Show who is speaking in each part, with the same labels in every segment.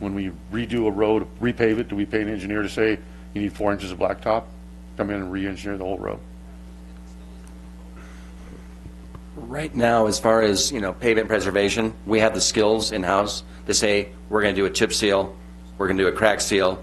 Speaker 1: When we redo a road, repave it, do we pay an engineer to say, you need four inches of blacktop? Come in and re-engineer the whole road.
Speaker 2: Right now, as far as, you know, pavement preservation, we have the skills in-house to say, we're going to do a chip seal, we're going to do a crack seal.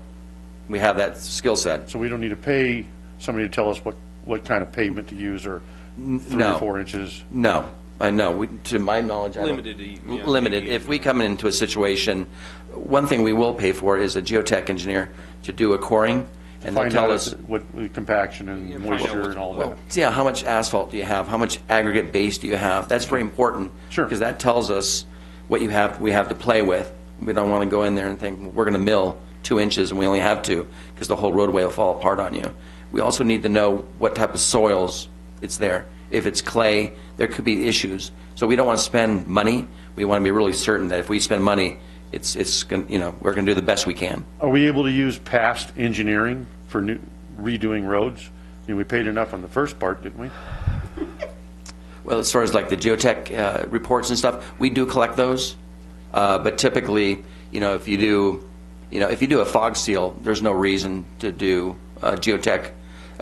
Speaker 2: We have that skill set.
Speaker 1: So we don't need to pay somebody to tell us what, what kind of pavement to use or three or
Speaker 2: no.
Speaker 1: four inches.
Speaker 2: No, I know, we- to my knowledge, I don't...
Speaker 3: Limited, yeah,
Speaker 2: Limited.
Speaker 3: maybe.
Speaker 2: If we come into a situation, one thing we will pay for is a geotech engineer to do a coring, and they'll
Speaker 1: Find
Speaker 2: tell
Speaker 1: out
Speaker 2: us,
Speaker 1: what what compaction
Speaker 3: Yeah,
Speaker 1: and
Speaker 3: find out
Speaker 1: moisture
Speaker 3: what-
Speaker 1: and all
Speaker 2: well,
Speaker 1: that.
Speaker 2: yeah, how much asphalt do you have? How much aggregate base do you have? That's very important.
Speaker 1: Sure.
Speaker 2: Because that tells us what you have, we have to play with. We don't want to go in there and think, we're going to mill two inches and we only have two, because the whole roadway will fall apart on you. We also need to know what type of soils it's there. If it's clay, there could be issues. So we don't want to spend money. We want to be really certain that if we spend money, it's, it's, gon- you know, we're going to do the best we can.
Speaker 1: Are we able to use past engineering for new, redoing roads? I mean, we paid enough on the first part, didn't we?
Speaker 2: Well, as far as like the geotech uh, reports and stuff, we do collect those, uh, but typically, you know, if you do, you know, if you do a fog seal, there's no reason to do uh, geotech.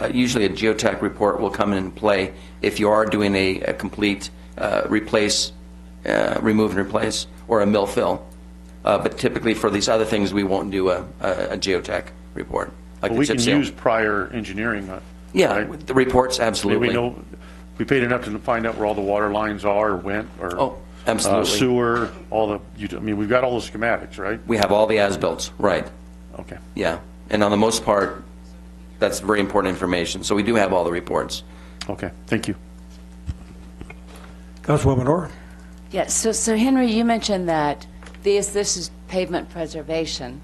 Speaker 2: Uh, usually, a geotech report will come in play if you are doing a, a complete uh, replace, uh, remove and replace, or a mill fill. Uh, but typically, for these other things, we won't do a, a, a geotech report.
Speaker 1: But
Speaker 2: Like the
Speaker 1: we
Speaker 2: chip
Speaker 1: can
Speaker 2: seal.
Speaker 1: use prior engineering. uh,
Speaker 2: yeah,
Speaker 1: right?
Speaker 2: with the reports
Speaker 1: I mean,
Speaker 2: absolutely.
Speaker 1: We know, we paid enough to find out where all the water lines are, or went, or.
Speaker 2: Oh, absolutely.
Speaker 1: uh, Sewer, all the, ut- I mean, we've got all the schematics, right?
Speaker 2: we have all the as builts, right?
Speaker 1: Okay.
Speaker 2: Yeah, and on the most part, that's very important information. So we do have all the reports.
Speaker 1: Okay, thank you.
Speaker 4: Councilwoman Orr?
Speaker 5: Yes, so, so Henry, you mentioned that these, this is pavement preservation,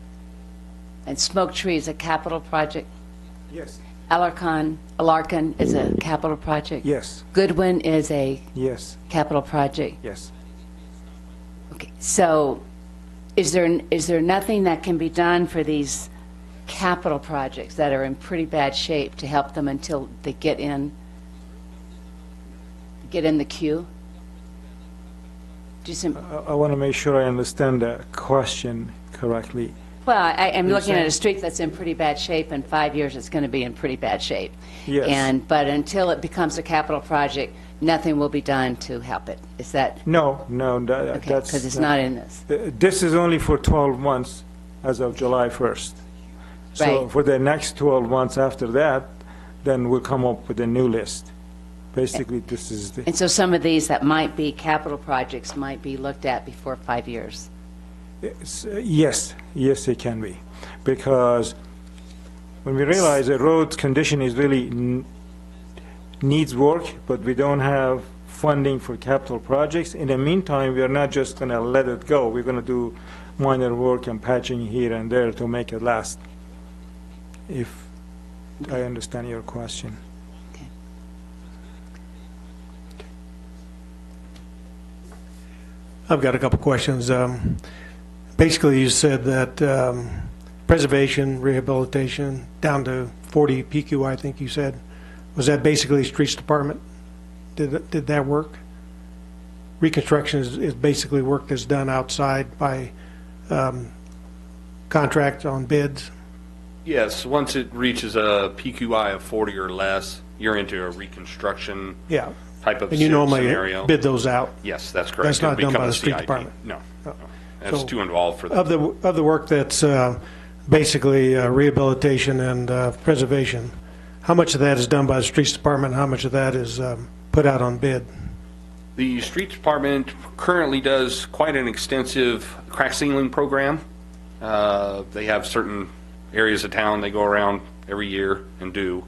Speaker 5: and Smoke Tree is a capital project.
Speaker 4: Yes.
Speaker 5: Alarcon, Alarcon is a capital project.
Speaker 4: Yes,
Speaker 5: Goodwin is a
Speaker 4: yes,
Speaker 5: capital project.
Speaker 4: yes.
Speaker 5: Okay, so is there, is there nothing that can be done for these capital projects that are in pretty bad shape to help them until they get in, get in the queue? Do you see?
Speaker 4: I want to make sure I understand the question correctly.
Speaker 5: Well, I am
Speaker 4: You're
Speaker 5: looking at
Speaker 4: saying-
Speaker 5: a street that's in pretty bad shape. In five years, it's going to be in pretty bad shape.
Speaker 4: Yes.
Speaker 5: And, but until it becomes a capital project, nothing will be done to help it. Is that,
Speaker 4: No, no, tha-
Speaker 5: okay,
Speaker 4: that's...
Speaker 5: because it's not in this.
Speaker 4: Uh, This is only for 12 months as of July 1st. So
Speaker 5: Right.
Speaker 4: for the next 12 months after that, then we'll come up with a new list. Basically, this is the...
Speaker 5: And so some of these that might be capital projects might be looked at before five years.
Speaker 4: It's, uh, Yes, yes, it can be, because when we realize a road condition is really n- needs work, but we don't have funding for capital projects, in the meantime, we are not just going to let it go. We're going to do minor work and patching here and there to make it last, if I understand your question.
Speaker 6: I've got a couple questions. Um, Basically, you said that um, preservation, rehabilitation, down to 40 PQI, I think you said, was that basically streets department? Did th- did that work? Reconstruction is is basically work that's done outside by um, contract on bids?
Speaker 3: Yes, once it reaches a PQI of 40 or less, you're into a reconstruction
Speaker 6: Yeah.
Speaker 3: type of
Speaker 6: And you normally
Speaker 3: scenario.
Speaker 6: bid those out?
Speaker 3: Yes, that's correct.
Speaker 6: That's not done by
Speaker 3: It'll become a
Speaker 6: the street
Speaker 3: CIP.
Speaker 6: department. Oh.
Speaker 3: No, no. that's
Speaker 6: So-
Speaker 3: too involved for
Speaker 6: Of
Speaker 3: that.
Speaker 6: the, of the work that's uh, basically uh, rehabilitation and uh, preservation, how much of that is done by the streets department, how much of that is um, put out on bid?
Speaker 3: The street department currently does quite an extensive crack sealing program. Uh, They have certain areas of town they go around every year and do,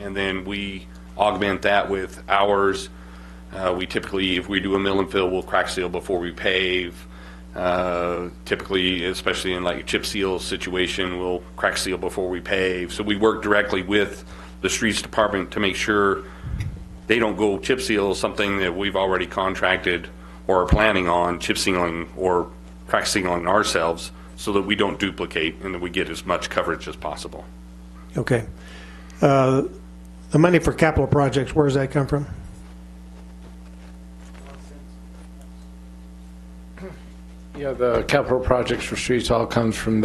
Speaker 3: and then we augment that with ours. Uh, We typically, if we do a mill and fill, we'll crack seal before we pave. Uh, Typically, especially in like a chip seal situation, we'll crack seal before we pave. So we work directly with the streets department to make sure they don't go chip seal something that we've already contracted or are planning on chip sealing or crack sealing ourselves so that we don't duplicate and that we get as much coverage as possible.
Speaker 6: Okay. Uh, The money for capital projects, where does that come from?
Speaker 7: Yeah, the capital projects for streets all comes from